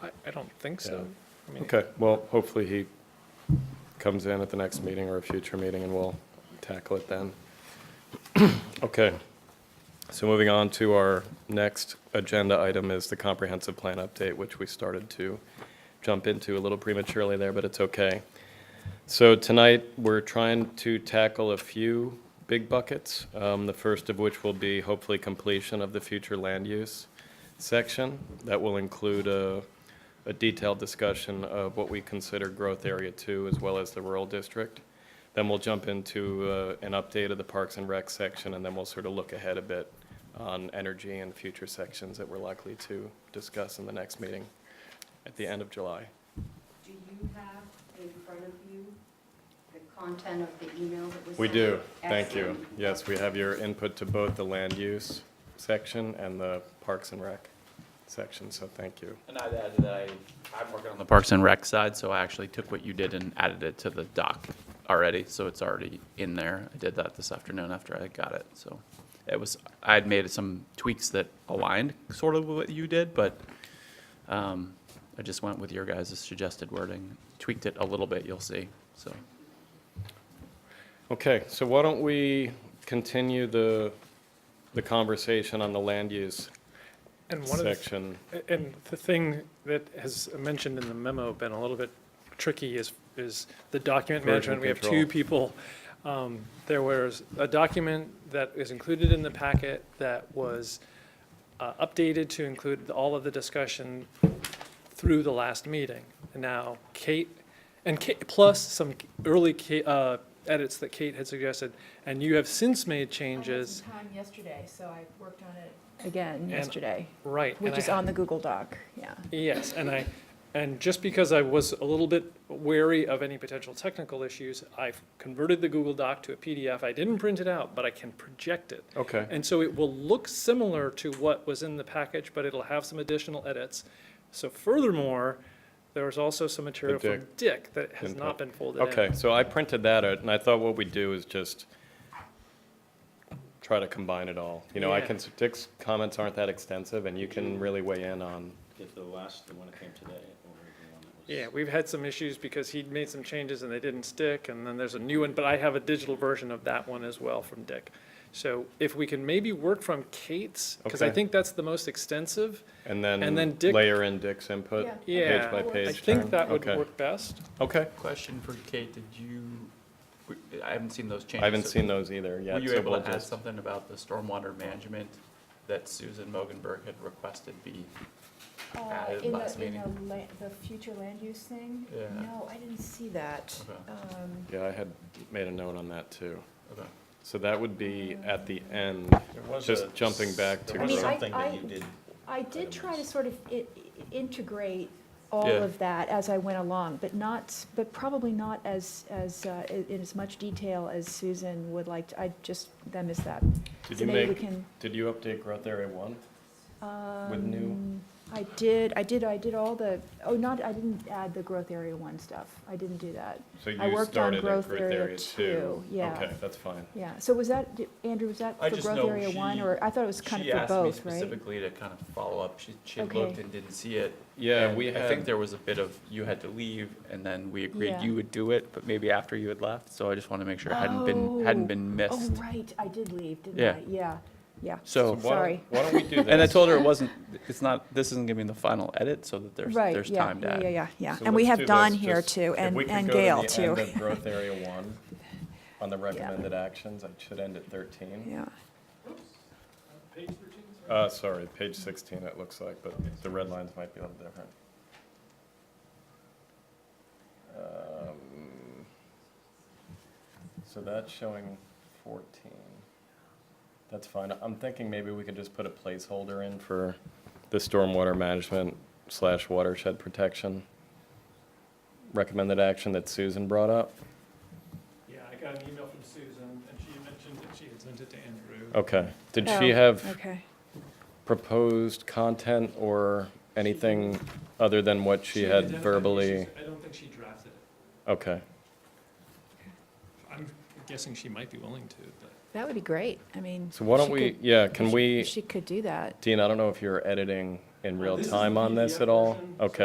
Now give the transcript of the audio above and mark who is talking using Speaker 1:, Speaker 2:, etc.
Speaker 1: don't think so. I mean,
Speaker 2: Okay, well, hopefully he comes in at the next meeting or a future meeting and we'll tackle it then. Okay, so moving on to our next agenda item is the comprehensive plan update, which we started to jump into a little prematurely there, but it's okay. So tonight, we're trying to tackle a few big buckets, um, the first of which will be hopefully completion of the future land use section. That will include a a detailed discussion of what we consider growth area two as well as the rural district. Then we'll jump into uh, an update of the Parks and Rec section, and then we'll sort of look ahead a bit on energy and future sections that we're likely to discuss in the next meeting at the end of July.
Speaker 3: Do you have in front of you the content of the email that was?
Speaker 2: We
Speaker 3: sent?
Speaker 2: do, thank you.
Speaker 3: Excellent.
Speaker 2: Yes, we have your input to both the land use section and the Parks and Rec section, so thank you.
Speaker 4: And I'd add that I, I'm working on the Parks and Rec side, so I actually took what you did and added it to the doc already, so it's already in there. I did that this afternoon after I got it, so. It was, I had made some tweaks that aligned sort of with what you did, but, um, I just went with your guys' suggested wording, tweaked it a little bit, you'll see, so.
Speaker 2: Okay, so why don't we continue the, the conversation on the land use
Speaker 1: And one of the
Speaker 2: section?
Speaker 1: And the thing that has mentioned in the memo been a little bit tricky is, is the document
Speaker 2: Version
Speaker 1: management. We have
Speaker 2: control.
Speaker 1: two people. Um, There was a document that is included in the packet that was uh, updated to include all of the discussion through the last meeting. And now Kate, and Kate, plus some early Kate, uh, edits that Kate had suggested, and you have since made changes.
Speaker 5: I had some time yesterday, so I worked on it again yesterday,
Speaker 1: Right. and
Speaker 5: which
Speaker 1: I
Speaker 5: is
Speaker 1: ha-
Speaker 5: on the Google Doc, yeah.
Speaker 1: Yes, and I, and just because I was a little bit wary of any potential technical issues, I've converted the Google Doc to a PDF. I didn't print it out, but I can project it.
Speaker 2: Okay.
Speaker 1: And so it will look similar to what was in the package, but it'll have some additional edits. So furthermore, there was also some material from
Speaker 2: Dick.
Speaker 1: Dick that has
Speaker 2: Input.
Speaker 1: not been folded in.
Speaker 2: Okay, so I printed that out, and I thought what we'd do is just try to combine it all. You know, I
Speaker 1: Yeah. Mm-hmm.
Speaker 2: can, Dick's comments aren't that extensive, and you can really weigh in on,
Speaker 6: Did the last, the one that came today, or the one that was?
Speaker 1: Yeah, we've had some issues because he'd made some changes and they didn't stick, and then there's a new one, but I have a digital version of that one as well from Dick. So if we can maybe work from Kate's, because I
Speaker 2: Okay.
Speaker 1: think that's the most extensive,
Speaker 2: and
Speaker 1: And then
Speaker 2: then
Speaker 1: Dick-
Speaker 2: layer in Dick's input,
Speaker 5: Yeah.
Speaker 1: yeah.
Speaker 2: page by page.
Speaker 1: I think that would
Speaker 2: Okay.
Speaker 1: work best.
Speaker 2: Okay,
Speaker 4: Question for Kate, did you, I haven't seen those changes.
Speaker 2: I haven't seen those either yet.
Speaker 4: Were you
Speaker 2: so
Speaker 4: able
Speaker 2: we'll
Speaker 4: to add
Speaker 2: just-
Speaker 4: something about the stormwater management that Susan Mogenberg had requested be added
Speaker 5: Uh, In
Speaker 4: last
Speaker 5: the, in
Speaker 4: meeting?
Speaker 5: the la- the future land use thing?
Speaker 4: Yeah.
Speaker 5: No, I didn't see that.
Speaker 4: Okay.
Speaker 5: Um,
Speaker 2: Yeah, I had made a note on that, too.
Speaker 4: Okay.
Speaker 2: So that would be
Speaker 5: Uh,
Speaker 2: at the end,
Speaker 6: There was
Speaker 2: just
Speaker 6: a-
Speaker 2: jumping back to
Speaker 6: There was
Speaker 5: I mean, I-
Speaker 6: something that
Speaker 5: I-
Speaker 6: you did.
Speaker 5: I did try to sort of i- i- integrate all
Speaker 4: Yeah.
Speaker 5: of that as I went along, but not, but probably not as, as, uh, i- in as much detail as Susan would like. to- I just, I missed that.
Speaker 2: Did
Speaker 5: So
Speaker 2: you
Speaker 5: maybe we
Speaker 2: make,
Speaker 5: can-
Speaker 2: did you update growth area one? With new-
Speaker 5: Um, I did, I did, I did all the, oh, not, I didn't add the growth area one stuff. I didn't do that.
Speaker 2: So
Speaker 5: I
Speaker 2: you
Speaker 5: worked on
Speaker 2: started at
Speaker 5: growth
Speaker 2: growth
Speaker 5: area
Speaker 2: area two?
Speaker 5: two, yeah.
Speaker 2: Okay, that's fine.
Speaker 5: Yeah, so was that, did- Andrew, was that
Speaker 4: I
Speaker 5: for
Speaker 4: just
Speaker 5: growth
Speaker 4: know
Speaker 5: area one,
Speaker 4: she-
Speaker 5: or I thought it was kind
Speaker 4: She
Speaker 5: of for
Speaker 4: asked me
Speaker 5: both, right?
Speaker 4: specifically to kind of follow up. She, she had
Speaker 5: Okay.
Speaker 4: looked and didn't see it.
Speaker 2: Yeah,
Speaker 4: and
Speaker 2: we
Speaker 4: I think
Speaker 2: had-
Speaker 4: there was a bit of, you had to leave and then we agreed
Speaker 5: Yeah.
Speaker 4: you would do it, but maybe after you had left. So I just wanted to make sure it hadn't been, hadn't been
Speaker 5: Oh,
Speaker 4: missed.
Speaker 5: Oh, right, I did leave, didn't
Speaker 4: Yeah.
Speaker 5: I? Yeah, yeah.
Speaker 4: So-
Speaker 2: Why don't-
Speaker 5: Sorry.
Speaker 2: Why don't we do this?
Speaker 4: And I told her it wasn't, it's not, this isn't gonna be in the final edit so that there's,
Speaker 5: Right,
Speaker 4: there's
Speaker 5: yeah,
Speaker 4: time to
Speaker 5: yeah,
Speaker 4: add.
Speaker 5: yeah, yeah, yeah.
Speaker 2: So
Speaker 5: And we
Speaker 2: let's
Speaker 5: have
Speaker 2: do
Speaker 5: Don
Speaker 2: this,
Speaker 5: here
Speaker 2: just-
Speaker 5: too,
Speaker 2: if
Speaker 5: and,
Speaker 2: we could
Speaker 5: and
Speaker 2: go to the
Speaker 5: Gail
Speaker 2: end
Speaker 5: too.
Speaker 2: of growth area one, on the recommended actions, I should end at 13.
Speaker 5: Yeah,
Speaker 2: Uh, sorry, page 16 it looks like, but the red lines might be a little different. Um, So that's showing 14. That's fine. I'm thinking maybe we could just put a placeholder in for the stormwater management slash watershed protection recommended action that Susan brought up.
Speaker 1: Yeah, I got an email from Susan, and she mentioned that she had sent it to Andrew.
Speaker 2: Okay. Did she
Speaker 5: Oh,
Speaker 2: have?
Speaker 5: okay.
Speaker 2: proposed content or anything other than what she had verbally?
Speaker 1: I don't think she drafted it.
Speaker 2: Okay,
Speaker 1: I'm guessing she might be willing to, but.
Speaker 5: That would be great. I mean.
Speaker 2: so why don't
Speaker 5: she
Speaker 2: we,
Speaker 5: could-
Speaker 2: yeah, can
Speaker 5: she-
Speaker 2: we,
Speaker 5: She could do that.
Speaker 2: Dean, I don't know if you're editing in real
Speaker 1: Uh, This is
Speaker 2: time
Speaker 1: the
Speaker 2: on this
Speaker 1: PDF
Speaker 2: at all?
Speaker 1: version, so
Speaker 2: Okay.